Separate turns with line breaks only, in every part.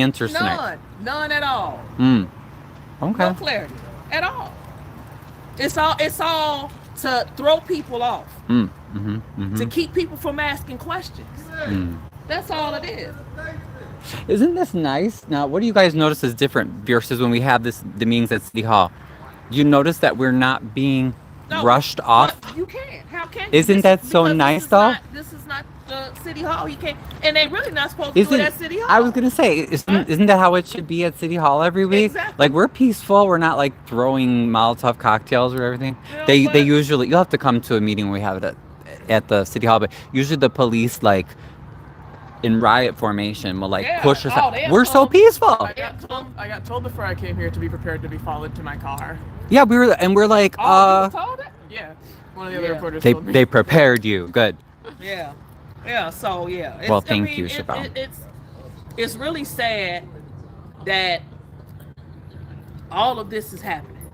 answer snack.
None. None at all.
Mm. Okay.
No clarity at all. It's all it's all to throw people off,
Mm. Mm-hmm. Mm-hmm.
to keep people from asking questions.
Mm.
That's all it is.
Isn't this nice? Now, what do you guys notice is different versus when we have this the meetings at City Hall? Do you notice that we're not being
No,
rushed off?
But You can't. How can you?
Isn't
This-
that so
because
nice,
this is
though?
Not, this is not the city hall. You can't, and they really not supposed to do
Isn't
it at city hall.
I was gonna say, isn't, isn't that how it should be at City Hall every week?
Exactly.
Like we're peaceful. We're not like throwing Molotov cocktails or everything.
Yeah,
they they
but-
usually you'll have to come to a meeting we have it at at the City Hall, but usually the police like in riot formation will like
Yeah.
push us
Oh,
out.
they'll
We're so
come.
peaceful.
I got told I got told before I came here to be prepared to be followed to my car.
Yeah, we were and we're like,
Oh,
uh,
you was told it?
Yeah, one of the other
Yeah.
reporters
they
told me.
they prepared you. Good.
Yeah, yeah. So yeah. It's,
Well,
I
thank
mean,
you,
it-
Chevelle.
it- it's it's really sad that all of this is happening.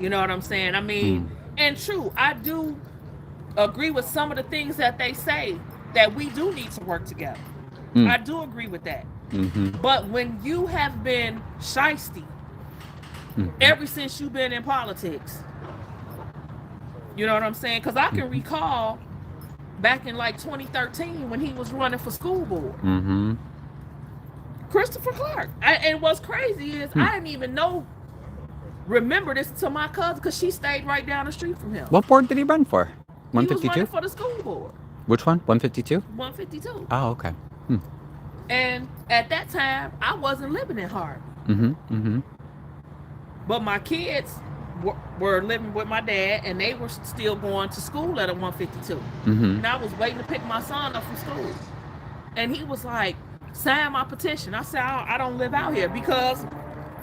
You know what I'm saying? I mean,
Hmm.
and true, I do agree with some of the things that they say that we do need to work together.
Mm.
I do agree with that.
Mm-hmm.
But when you have been shisty
Mhm.
ever since you've been in politics, you know what I'm saying? Because I
Mm-hmm.
can recall back in like 2013 when he was running for school board,
Mm-hmm.
Christopher Clark. I, and what's crazy is
Mm.
I didn't even know, remember this to my cousin because she stayed right down the street from him.
What board did he run for? One
He was
fifty
running
two.
for the school board,
Which one? One fifty two.
152.
Oh, okay.
And at that time, I wasn't living in Harvey.
Mm-hmm. Mm-hmm.
But my kids were, were living with my dad, and they were still going to school at a 152.
Mm-hmm.
And I was waiting to pick my son up from school, and he was like, "Sign my petition." I said, "I, I don't live out here because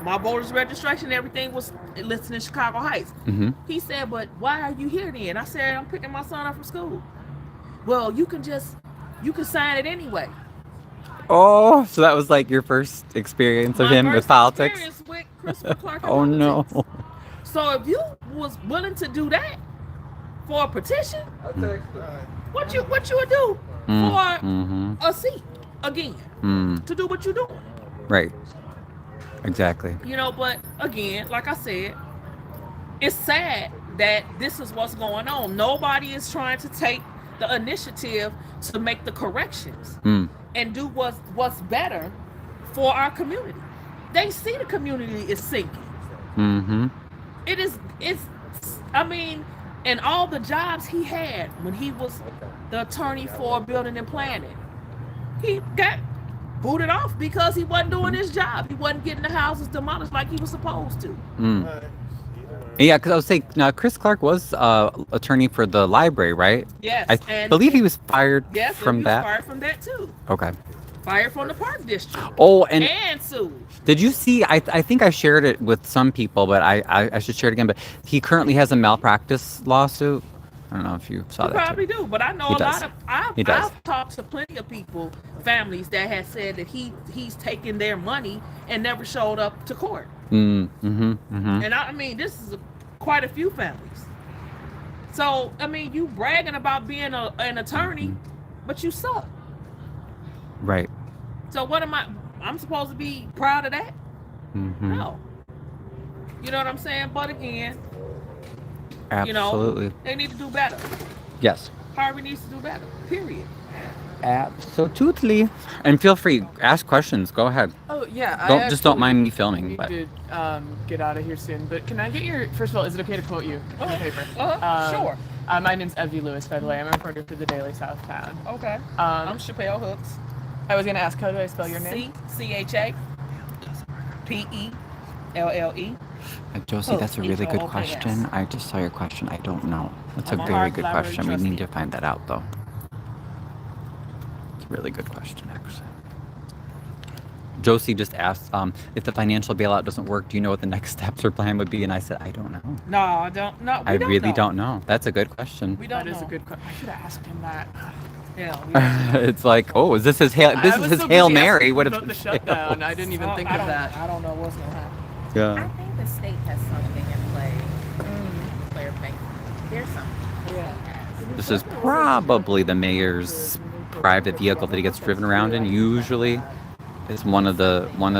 my voter's registration, everything was listed in Chicago Heights."
Mm-hmm.
He said, "But why are you here then?" I said, "I'm picking my son up from school." Well, you can just you can sign it anyway.
Oh, so that was like your first experience of
My
him with
first
politics.
experience With Christopher Clark and
Oh no.
politics. So if you was willing to do that for a petition, what you what you would do for
Mm-hmm.
a seat again
Mm,
to do what you're doing,
right. Exactly.
you know? But again, like I said, it's sad that this is what's going on. Nobody is trying to take the initiative to make the corrections
Mm,
and do what's what's better for our community. They see the community is sinking.
mm-hmm.
it is it's i mean and all the jobs he had when he was the attorney for building and planning he got booted off because he wasn't doing his job he wasn't getting the houses demolished like he was supposed to
Mm. Yeah, because I was saying, now Chris Clark was uh, attorney for the library, right?
yes
I
and
believe he was fired
yes and he
from
was
that.
fired from that too
Okay.
fired from the park district
Oh, and
and sued
Did you see? I, I think I shared it with some people, but I, I, I should share it again. But he currently has a malpractice lawsuit. I don't know if you saw
You
that.
probably
too.
do, but I know
He
a
does.
lot of I've,
He does.
I've talked to plenty of people, families that have said that he he's taken their money and never showed up to court.
Mm, hmm hmm
And I, I mean, this is a, quite a few families. So I mean, you bragging about being a, an attorney, but you suck.
Right.
So what am I? I'm supposed to be proud of that?
hmm
No. You know what I'm saying? But again, you know,
Absolutely.
they need to do better.
Yes.
Harvey needs to do better. Period.
Absolutely. And feel free, ask questions. Go ahead.
Oh yeah. I
Don't just don't
actually
mind me filming.
Need
But
to um, get out of here soon, but can I get your? First of all, is it okay to quote you on the
Uh-huh.
paper?
Uh-huh. Sure.
Uh, my name's Evie Lewis, by the way. I'm a reporter for the Daily South Town.
Okay.
Uh,
I'm
Um,
Chappelle Hooks.
I was gonna ask, how do I
oh,
spell your name?
C C H A P E L L E.
Uh, Josie,
Oh,
that's a
you
really
know,
good
okay, yes.
question. I just saw your question. I don't know. That's a
I'm a
very
hard
good
library
question. We need
trustee.
to find that out, though. It's a really good question, actually. Josie just asked um, if the financial bailout doesn't work. Do you know what the next steps or plan would be? And I said, I don't know.
No, I don't. No, we
I
don't
really
know.
don't know. That's a good question.
We don't
That
know.
is a good question. I should have asked him that.
Yeah. we don't-
it's like, oh, is this his hail?
I
This
was
is his
so
hail
busy asking
mary.
him
What
about the
if?
shutdown? I didn't even
Oh, I-
think
I
of
don't-
that.
I don't know what's gonna happen.
I
Yeah.
think the state has something in play.
Mm-hmm.
Claire Bank. There's something.
Yeah.
This is probably the mayor's private vehicle that he gets driven around in. Usually, it's one of the one